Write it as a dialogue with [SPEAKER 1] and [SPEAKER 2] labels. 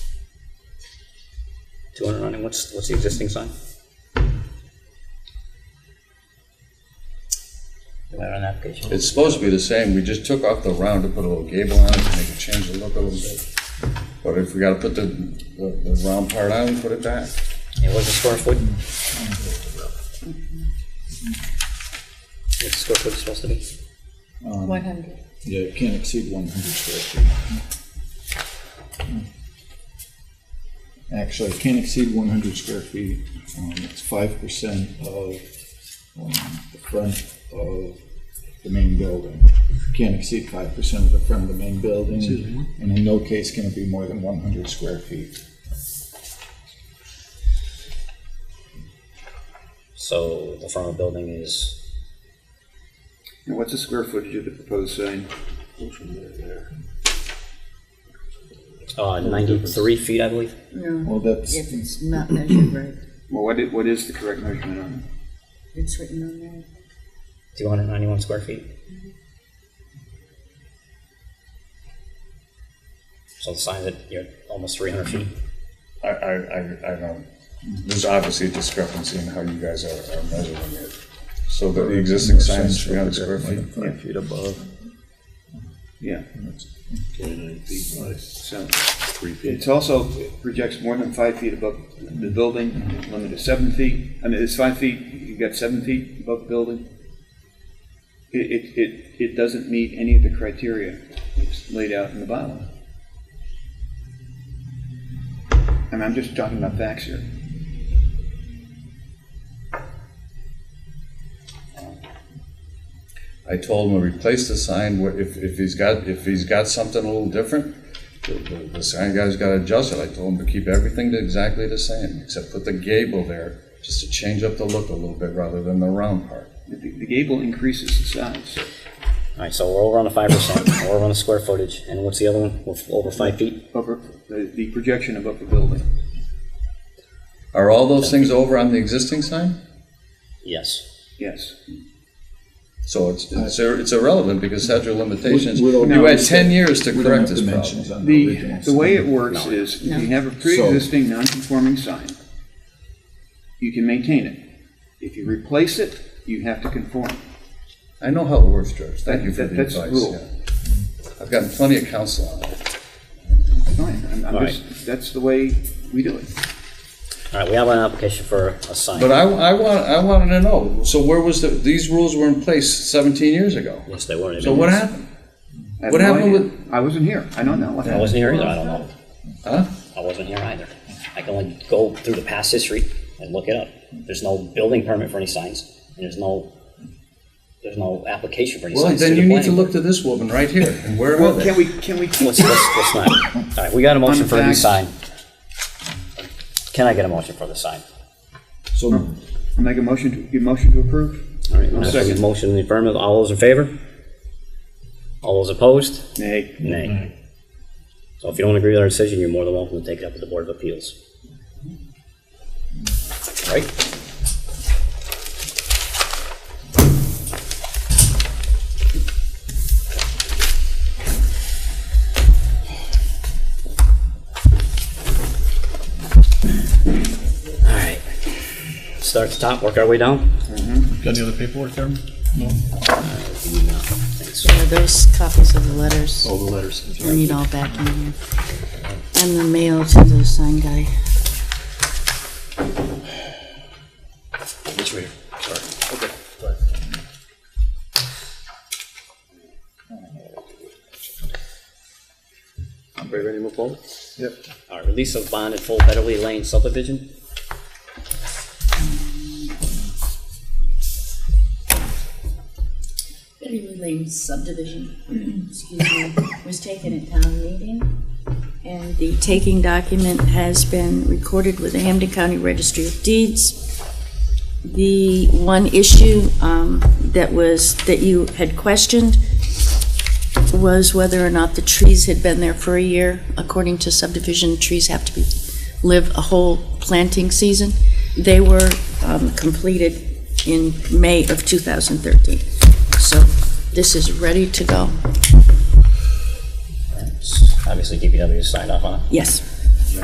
[SPEAKER 1] 290, what's, what's the existing sign? Where on the application?
[SPEAKER 2] It's supposed to be the same, we just took off the round to put a little gable on it to make it change the look a little bit. But if we gotta put the, the, the round part on, we put it back.
[SPEAKER 1] And what's the square foot? What's the square foot supposed to be?
[SPEAKER 3] 100.
[SPEAKER 4] Yeah, it can't exceed one hundred square feet. Actually, it can't exceed one hundred square feet. Um, it's five percent of, um, the front of the main building. Can't exceed five percent of the front of the main building, and in no case can it be more than one hundred square feet.
[SPEAKER 1] So the front of the building is,
[SPEAKER 5] And what's the square footage of the proposed sign?
[SPEAKER 1] uh, 93 feet, I believe?
[SPEAKER 3] No,
[SPEAKER 4] Well, that's,
[SPEAKER 3] if it's not measured right.
[SPEAKER 5] Well, what is, what is the correct measurement on
[SPEAKER 3] It's written on there.
[SPEAKER 1] 291 square feet? So the sign's at, you're almost 300 feet.
[SPEAKER 2] I, I, I, I know, there's obviously a discrepancy in how you guys are, are measuring it. So the existing sign is three hundred square feet.
[SPEAKER 4] five feet above.
[SPEAKER 5] it? Yeah,
[SPEAKER 6] Twenty-nine feet by
[SPEAKER 5] so
[SPEAKER 6] three feet.
[SPEAKER 5] it's also it projects more than five feet above the building, limit is seven feet. I mean, it's five feet, you've got seven feet above the building. It, it, it, it doesn't meet any of the criteria that's laid out in the bylaw. And I'm just talking about facts here.
[SPEAKER 2] I told him to replace the sign, where- if, if he's got, if he's got something a little different, the, the- the sign guy's gotta adjust it, I told him to keep everything exactly the same, except put the gable there, just to change up the look a little bit rather than the round part.
[SPEAKER 5] The the gable increases the size.
[SPEAKER 1] All right, so we're over on the 5%, we're over on the square footage, and what's the other one? We're Over 5 feet?
[SPEAKER 5] Upper, the, the projection above the building.
[SPEAKER 2] Are all those things over on the existing sign?
[SPEAKER 1] Yes.
[SPEAKER 5] Yes.
[SPEAKER 2] So it's, it's ir- it's irrelevant because statute of limitations,
[SPEAKER 4] We- we don't-
[SPEAKER 2] you had ten years to
[SPEAKER 4] We don't
[SPEAKER 2] correct
[SPEAKER 4] have
[SPEAKER 2] this problem.
[SPEAKER 4] dimensions on the
[SPEAKER 5] The,
[SPEAKER 4] original.
[SPEAKER 5] the way it
[SPEAKER 4] sign.
[SPEAKER 5] works is, if you
[SPEAKER 3] No.
[SPEAKER 5] have a pre-existing non-conforming sign, you can maintain it. If you replace it, you have to conform.
[SPEAKER 2] I know how it works, George, thank you for
[SPEAKER 5] That-
[SPEAKER 2] the
[SPEAKER 5] that's the
[SPEAKER 2] advice,
[SPEAKER 5] rule.
[SPEAKER 2] yeah. I've gotten plenty of counsel on it.
[SPEAKER 5] Fine, I'm, I'm
[SPEAKER 1] Right.
[SPEAKER 5] just, that's the way we do it.
[SPEAKER 1] All right, we have an application for a sign.
[SPEAKER 2] But I, I want, I wanted to know, so where was the, these rules were in place seventeen years ago?
[SPEAKER 1] Yes, they were.
[SPEAKER 2] So what happened?
[SPEAKER 5] I have
[SPEAKER 2] What
[SPEAKER 5] no
[SPEAKER 2] happened
[SPEAKER 5] idea. I wasn't here, I don't know what
[SPEAKER 1] I
[SPEAKER 5] happened.
[SPEAKER 1] wasn't here either, I don't know.
[SPEAKER 2] Huh?
[SPEAKER 1] I wasn't here either. I can only go through the past history and look it up. There's no building permit for any signs, and there's no, there's no application for any
[SPEAKER 2] Well,
[SPEAKER 1] signs.
[SPEAKER 2] then
[SPEAKER 1] the
[SPEAKER 2] you need to
[SPEAKER 1] planning
[SPEAKER 2] look to this woman right here, and where are
[SPEAKER 5] Well, can
[SPEAKER 2] they?
[SPEAKER 5] we, can we,
[SPEAKER 1] board. Let's, let's, let's not. All right, we got a motion for a new
[SPEAKER 5] Unfact-
[SPEAKER 1] sign. Can I get a motion for the sign?
[SPEAKER 4] So
[SPEAKER 5] make a motion to, your motion to approve?
[SPEAKER 1] All right,
[SPEAKER 5] I'll
[SPEAKER 1] now for the
[SPEAKER 5] second.
[SPEAKER 1] motion in the affirmative, all those in favor? All those opposed?
[SPEAKER 5] Nay.
[SPEAKER 1] Nay. So if you don't agree with our decision, you're more than welcome to take it up with the Board of Appeals. All Right? All right. Start at the top, work our way down?
[SPEAKER 6] Got any other paperwork there?
[SPEAKER 1] No, thanks.
[SPEAKER 3] Are those copies of the letters?
[SPEAKER 6] All the letters.
[SPEAKER 3] I need all back in here. And the mail to the sign guy.
[SPEAKER 6] This right here, sorry. Okay.
[SPEAKER 1] Ready to move forward?
[SPEAKER 4] Yep.
[SPEAKER 1] All right, release of bond at Full Betterly Lane subdivision.
[SPEAKER 3] Betty Lane subdivision, excuse me, was taken at town meeting. And the taking document has been recorded with the Hampden County Registry of Deeds. The one issue um, that was, that you had questioned was whether or not the trees had been there for a year. According to subdivision, trees have to be, live a whole planting season. They were um, completed in May of 2013. So this is ready to go.
[SPEAKER 1] Obviously, DPW signed off on it.
[SPEAKER 3] Yes.